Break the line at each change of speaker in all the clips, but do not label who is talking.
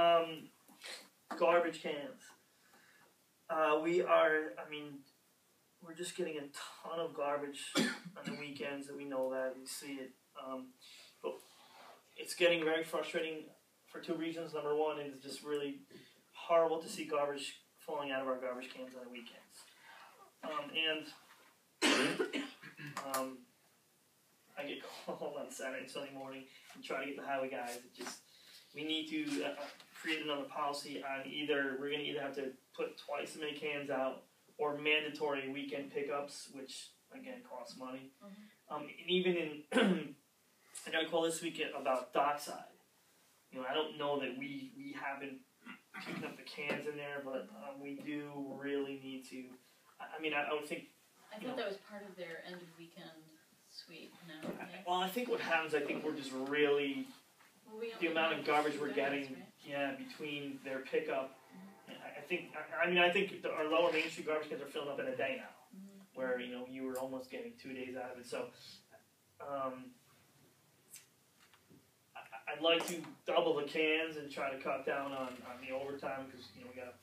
Um, garbage cans. Uh, we are, I mean, we're just getting a ton of garbage on the weekends, and we know that, we see it. Um, but it's getting very frustrating for two reasons. Number one, it is just really horrible to see garbage falling out of our garbage cans on the weekends. Um, and um, I get called on Saturday and Sunday morning and try to get the highway guys. It just we need to uh, uh, create another policy on either we're going to either have to put twice as many cans out or mandatory weekend pickups, which again costs money. Um, and even in I got a call this weekend about dockside. You know, I don't know that we we haven't picking up the cans in there, but um, we do really need to. I I mean, I, I would think.
I thought that was part of their end of weekend sweep. No, okay.
Well, I think what happens, I think we're just really
Well, we only
the amount
have
of garbage
two
we're
guys,
getting,
right?
yeah, between their pickup. I- I think, I- I mean, I think the, our lower Main Street garbage cans are filling up in a day now, where you know you were almost getting two days out of it. So, um, I, I- I'd like to double the cans and try to cut down on, on the overtime because you know we gotta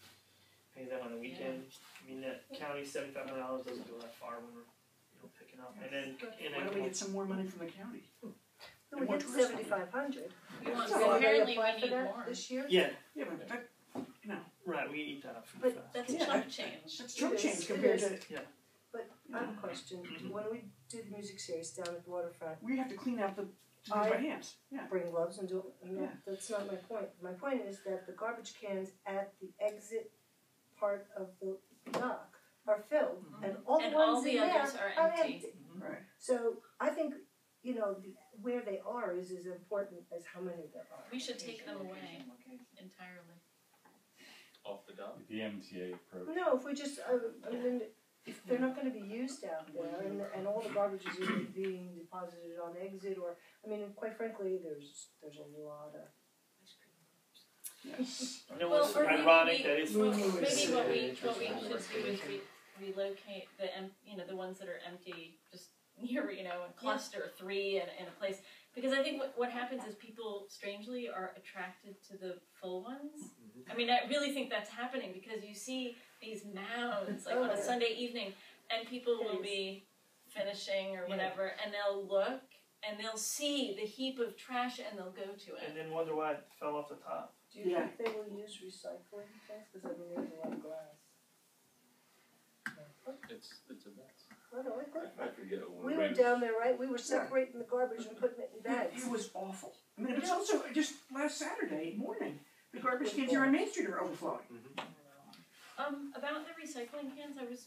pay them on the weekend. I mean, that county seventy five hundred dollars doesn't go that far when we're you know picking up, and then and
Why don't
then
we get some more money from the county?
No, we did seventy-five hundred.
We want,
So are they
apparently we
applying for
need
that
more.
this year?
yeah,
Yeah, but that, you know,
right, we eat that up. pretty
But
fast.
That's
Yeah.
chunk change.
that's chump
It is,
change
it
compared to,
is. um, I have a question.
Mhm.
When we did music series down at the waterfront,
we have to clean out the, to do it
I-
by hands, yeah.
bring gloves and do it, and that-
Yeah.
that's not my point. My point is that the garbage cans at the exit part of the dock are filled, and all the
Mm-hmm. And all
ones in
the
there
others are
are
empty.
empty.
Right.
So I think, you know, the, where they are is as important as how many there are.
We should take them away entirely.
off the dock.
The MTA approach.
No, if we just, uh, I mean, if they're not gonna be used out there, and, and all the garbage is either being deposited on exit, or, I mean, quite frankly, there's, there's a lot of.
Yes.
You know
Well,
what's
or maybe
ironic
we-
that it's
Well,
Maybe
maybe
it's,
what we what
uh,
we
interesting.
should do is re- relocate the em- you know the ones that are empty just near you know in cluster three and in a place because I think what, what happens is people strangely are attracted to the full ones.
Mm-hmm.
I mean, I really think that's happening because you see these mounds like on
Oh,
a
yeah.
Sunday evening, and people will be finishing or
Yeah.
whatever, and they'll look and they'll see the heap of trash and they'll go to it.
and then wonder why it fell off the top.
Do you
Yeah.
think they will use recycling things, cause I mean, there's a lot of glass.
It's it's a mess.
What do I think?
I forget what
We were
ran-
down there, right, we were separating the garbage and putting it in
It,
bags.
it was awful. I mean, it was also just last Saturday morning, the garbage cans here on Main Street are overflowing.
Um, about the recycling cans, I was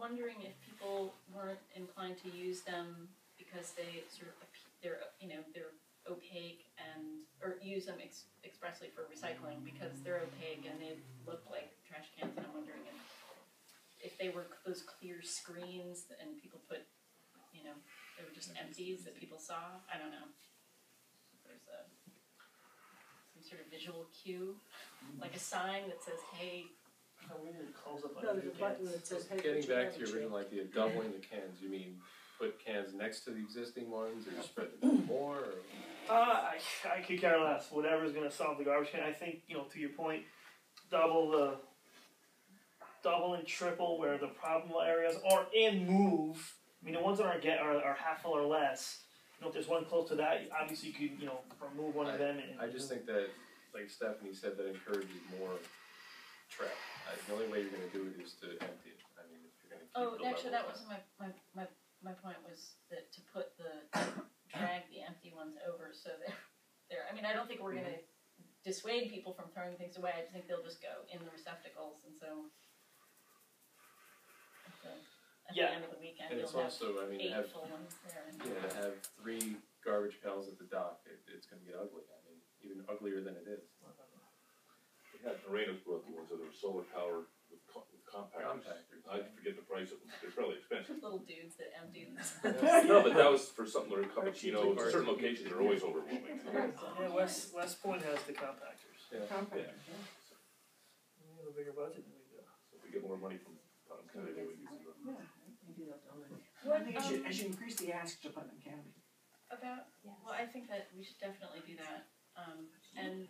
wondering if people weren't inclined to use them because they sort of ap- they're you know they're opaque and or use them ex- expressly for recycling because they're opaque and they look like trash cans. And I'm wondering if if they were c- those clear screens and people put you know they were just empties that people saw. I don't know. There's a some sort of visual cue, like a sign that says, "Hey,
How weird it calls up on
No,
your
there's a button
cans.
that says, hey,
Getting
put your
back
garbage
to your
in.
original idea, of doubling the cans, you mean put cans next to the existing ones or spread them more or?
Uh, I, I could care less. Whatever's gonna solve the garbage can. I think you know. To your point, double the, double and triple where the problem areas are, and move. I mean, the ones that are get are, are half full or less. You know, if there's one close to that, obviously you could you know remove one of them. And,
I just think that, like Stephanie said, that encourages more trap. I, the only way you're gonna do it is to empty it. I mean, if you're gonna keep
Oh,
the level
actually, that
of
wasn't my, my, my, my point was that to put the, drag the empty ones over so they're, they're, I mean, I don't think we're gonna dissuade people from throwing things away, I just think they'll just go in the receptacles and so. at the- At the
Yeah.
end of the weekend,
And it's
you'll have
also, I mean, to
eight
have
full ones there and.
Yeah, to have three garbage pails at the dock, it, it's going to get ugly. I mean, even uglier than it is.
We had Moreno's brought the ones that are solar powered with, co- with compactors.
Compactors,
I
yeah.
forget the price of them. They're probably expensive.
Little dudes that empty them.
no, but that was for something like a
Or
cappuccino.
cheese.
Certain locations are always overwhelming.
yeah, West West Point has the compactors.
Compact.
We have a bigger budget than we do.
So if we get more money from Putnam County, they would use it.
Yeah. I
What,
think I should, I
um,
should increase the ask to Putnam County.
about, well, I think that we should definitely do that, um, and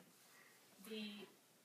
the,